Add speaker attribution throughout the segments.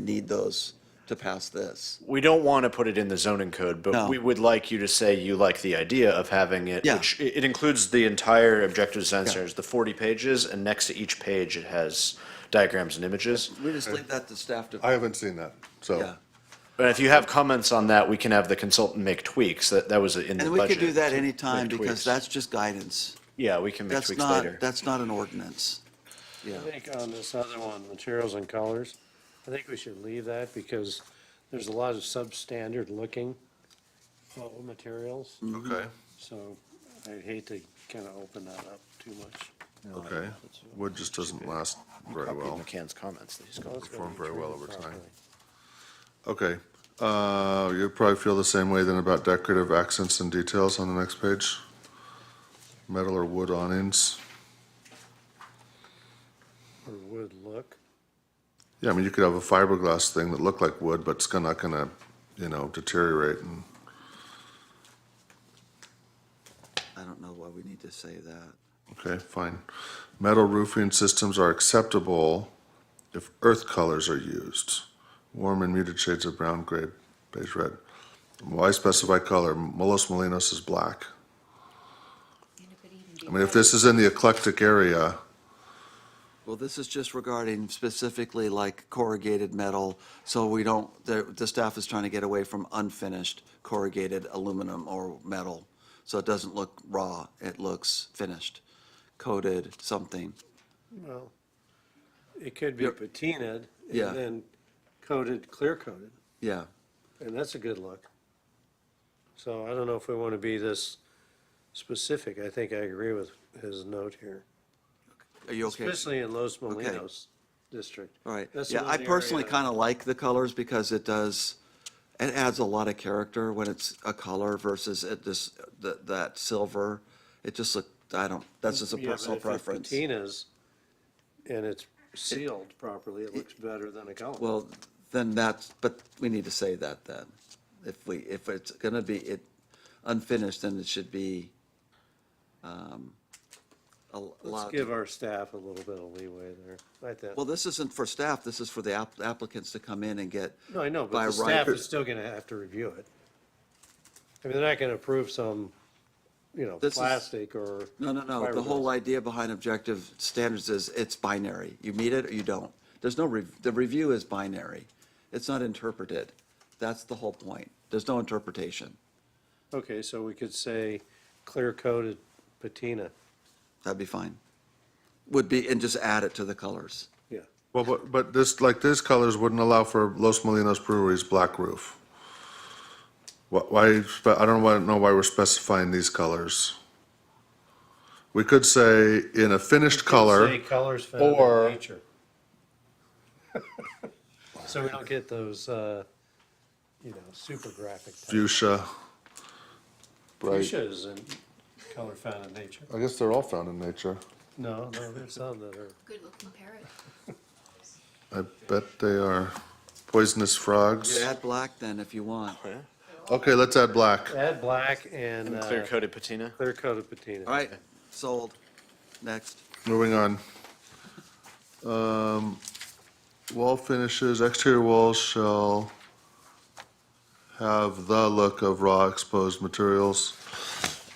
Speaker 1: need those to pass this.
Speaker 2: We don't want to put it in the zoning code,
Speaker 1: No.
Speaker 2: but we would like you to say you like the idea of having it.
Speaker 1: Yeah.
Speaker 2: which- It it includes the entire objective design standards, the 40 pages, and next to each page, it has diagrams and images.
Speaker 1: We just leave that to staff to,
Speaker 3: I haven't seen that,
Speaker 1: yeah.
Speaker 3: so.
Speaker 2: But if you have comments on that, we can have the consultant make tweaks. That, that was in the
Speaker 1: And
Speaker 2: budget.
Speaker 1: we could do that
Speaker 2: to
Speaker 1: anytime
Speaker 2: make
Speaker 1: because
Speaker 2: tweaks.
Speaker 1: that's just guidance.
Speaker 2: Yeah, we can make
Speaker 1: That's
Speaker 2: tweaks
Speaker 1: not,
Speaker 2: later.
Speaker 1: that's not an ordinance. Yeah,
Speaker 4: I think on this other one, materials and colors, I think we should leave that because there's a lot of substandard looking photo materials.
Speaker 3: Okay,
Speaker 4: So I'd hate to kind of open that up too much.
Speaker 3: okay. Wood just doesn't last very
Speaker 2: Copy
Speaker 3: well.
Speaker 2: McCann's comments. that he's got.
Speaker 4: Well, it's gotta
Speaker 3: Performed
Speaker 4: be
Speaker 3: very well
Speaker 4: treated
Speaker 3: over time.
Speaker 4: properly.
Speaker 3: Okay, uh, you probably feel the same way then about decorative accents and details on the next page? Metal or wood awnings?
Speaker 4: Or would look.
Speaker 3: Yeah, I mean, you could have a fiberglass thing that looked like wood, but it's gonna- not gonna, you know, deteriorate and,
Speaker 1: I don't know why we need to say that.
Speaker 3: okay, fine. Metal roofing systems are acceptable if earth colors are used. Warm and muted shades of brown, gray, beige, red. Why specify color? Molos Molinos is black. I mean, if this is in the eclectic area,
Speaker 1: Well, this is just regarding specifically like corrugated metal, so we don't, the, the staff is trying to get away from unfinished corrugated aluminum or metal. So it doesn't look raw, it looks finished, coated, something.
Speaker 4: Well, it could be
Speaker 1: Yep.
Speaker 4: patinaed
Speaker 1: Yeah.
Speaker 4: and then coated, clear coated,
Speaker 1: Yeah,
Speaker 4: and that's a good look. So I don't know if we want to be this specific. I think I agree with his note here.
Speaker 1: are you okay?
Speaker 4: Especially in Los Molinos district.
Speaker 1: All right.
Speaker 4: That's the
Speaker 1: Yeah, I
Speaker 4: one
Speaker 1: personally
Speaker 4: area-
Speaker 1: kind of like the colors because it does, it adds a lot of character when it's a color versus it just, that, that silver. It just look, I don't, that's just a
Speaker 4: Yeah, but
Speaker 1: personal
Speaker 4: if it's
Speaker 1: preference.
Speaker 4: Patinas, and it's sealed properly, it looks better than a color.
Speaker 1: Well, then that's, but we need to say that then. If we, if it's gonna be, it unfinished, then it should be, um, a
Speaker 4: Let's
Speaker 1: lot.
Speaker 4: give our staff a little bit of leeway there. I think,
Speaker 1: Well, this isn't for staff, this is for the app- applicants to come in and get.
Speaker 4: no, I know,
Speaker 1: by
Speaker 4: but the
Speaker 1: right-
Speaker 4: staff is still gonna have to review it. I mean, they're not gonna approve some, you know,
Speaker 1: This is-
Speaker 4: plastic or.
Speaker 1: No, no, no, the whole
Speaker 4: fiberglass.
Speaker 1: idea behind objective standards is it's binary. You meet it or you don't. There's no, rev- the review is binary. It's not interpreted. That's the whole point. There's no interpretation.
Speaker 4: Okay, so we could say clear coated patina,
Speaker 1: That'd be fine. Would be, and just add it to the colors.
Speaker 4: yeah.
Speaker 3: well, but, but this, like, these colors wouldn't allow for Los Molinos Brewery's black roof. Why- Why, spe- I don't wanna know why we're specifying these colors. We could say in a finished
Speaker 4: Say
Speaker 3: color,
Speaker 4: colors found
Speaker 3: or-
Speaker 4: in nature. So we don't get those, uh, you know, super graphic. type.
Speaker 3: fuchsia. Right.
Speaker 4: Fuchsia is in color found in nature.
Speaker 3: I guess they're all found in nature.
Speaker 4: No, no, there's some that are,
Speaker 5: Good-looking parrot.
Speaker 3: I bet they are poisonous
Speaker 1: You
Speaker 3: frogs.
Speaker 1: add black then if you want. All
Speaker 3: Okay, let's add black.
Speaker 4: add black and uh,
Speaker 2: Clear coated patina.
Speaker 4: clear coated patina.
Speaker 1: right, sold. Next.
Speaker 3: Moving on. Um, wall finishes, exterior walls shall have the look of raw exposed materials.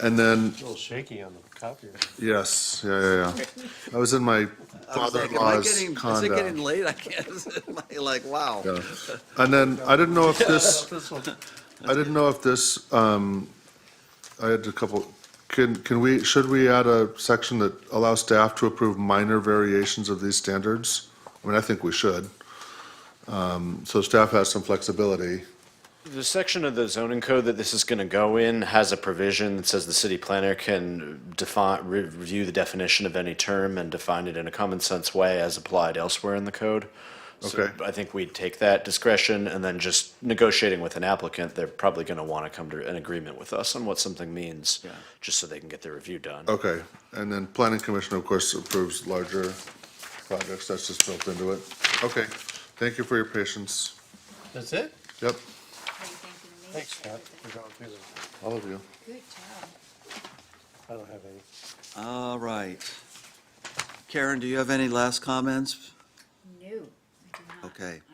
Speaker 3: And then,
Speaker 4: A little shaky on the copier.
Speaker 3: yes, yeah, yeah, yeah. I was in my
Speaker 1: I was like, am I
Speaker 3: father-in-law's
Speaker 1: getting- Is it getting
Speaker 3: condo.
Speaker 1: late? I can't, am I like, wow.
Speaker 3: Yeah. And then, I didn't know if this.
Speaker 4: This one,
Speaker 3: I didn't know if this, um, I had a couple, can, can we, should we add a section that allows staff to approve minor variations of these standards? I mean, I think we should. Um, so staff has some flexibility.
Speaker 2: The section of the zoning code that this is going to go in has a provision that says the city planner can define, re- review the definition of any term and define it in a common sense way as applied elsewhere in the code. So
Speaker 3: Okay.
Speaker 2: I think we take that discretion and then just negotiating with an applicant, they're probably going to want to come to an agreement with us on what something means, just so they can get their review done.
Speaker 3: Okay, and then planning commission, of course, approves larger projects, that's just built into it. Okay, thank you for your patience.
Speaker 4: that's it?
Speaker 3: Yep,
Speaker 5: How you thinking of me?
Speaker 4: Thanks, Scott,
Speaker 5: Everything.
Speaker 4: for going through this.
Speaker 3: all of you.
Speaker 5: Good job.
Speaker 4: I don't have any.
Speaker 1: All right. Karen, do you have any last comments?
Speaker 5: No, I do not.
Speaker 1: Okay.